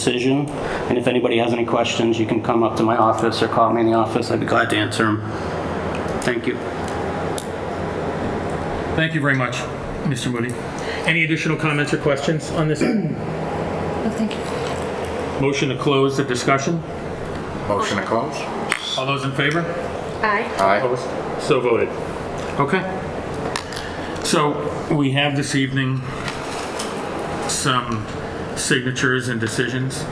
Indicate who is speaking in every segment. Speaker 1: decision. And if anybody has any questions, you can come up to my office or call me in the office. I'd be glad to answer them. Thank you.
Speaker 2: Thank you very much, Mr. Moody. Any additional comments or questions on this?
Speaker 3: No, thank you.
Speaker 2: Motion to close the discussion.
Speaker 4: Motion to close?
Speaker 2: All those in favor?
Speaker 3: Aye.
Speaker 4: Aye.
Speaker 2: So voted. Okay. So we have this evening some signatures and decisions.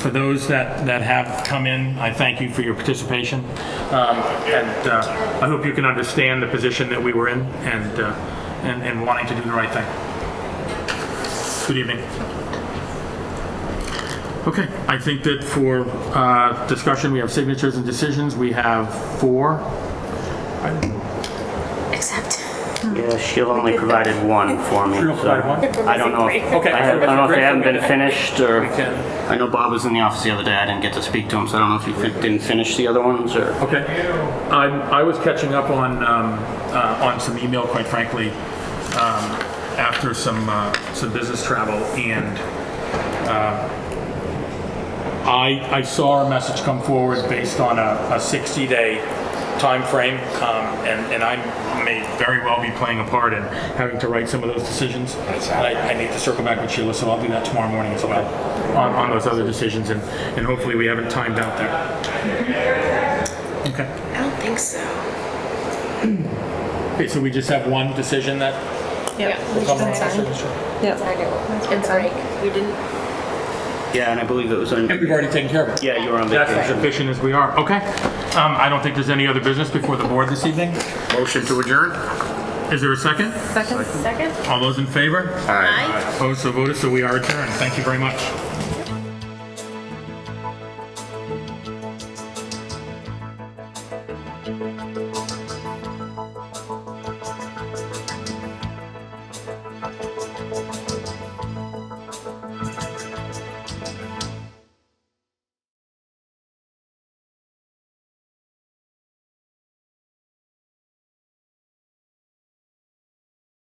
Speaker 2: For those that, that have come in, I thank you for your participation. Um, And uh, I hope you can understand the position that we were in and, uh, and and wanting to do the right thing. Good evening. Okay, I think that for uh, discussion, we have signatures and decisions. We have four.
Speaker 3: Except.
Speaker 1: Yeah, she'll only provided one for me.
Speaker 2: She'll
Speaker 1: so
Speaker 2: provide one?
Speaker 1: I don't know. if-
Speaker 2: Okay.
Speaker 1: I have- I don't know if they haven't been finished or,
Speaker 2: can-
Speaker 1: I know Bob was in the office the other day. I didn't get to speak to him, so I don't know if he fin- didn't finish the other ones or.
Speaker 2: Okay. I, I was catching up on, um, uh, on some email, quite frankly, um, after some, uh, some business travel, and, uh, I, I saw a message come forward based on a, a 60-day timeframe, um, and, and I may very well be playing a part in having to write some of those decisions. And I, I need to circle back with Sheila, so I'll do that tomorrow morning as well, on, on those other decisions, and, and hopefully we haven't timed out there. Okay.
Speaker 3: I don't think so.
Speaker 2: Okay, so we just have one decision that
Speaker 3: Yeah.
Speaker 2: will come on
Speaker 3: And break. We didn't.
Speaker 1: Yeah, and I believe it was on.
Speaker 2: We've already taken care of it.
Speaker 1: Yeah, you were on
Speaker 2: That's as
Speaker 1: vacation.
Speaker 2: efficient as we are. Okay. Um, I don't think there's any other business before the board this evening.
Speaker 4: Motion to adjourn?
Speaker 2: Is there a second?
Speaker 3: Second. Second.
Speaker 2: All those in favor?
Speaker 4: Aye.
Speaker 2: Opposed, so voted, so we are adjourned. Thank you very much.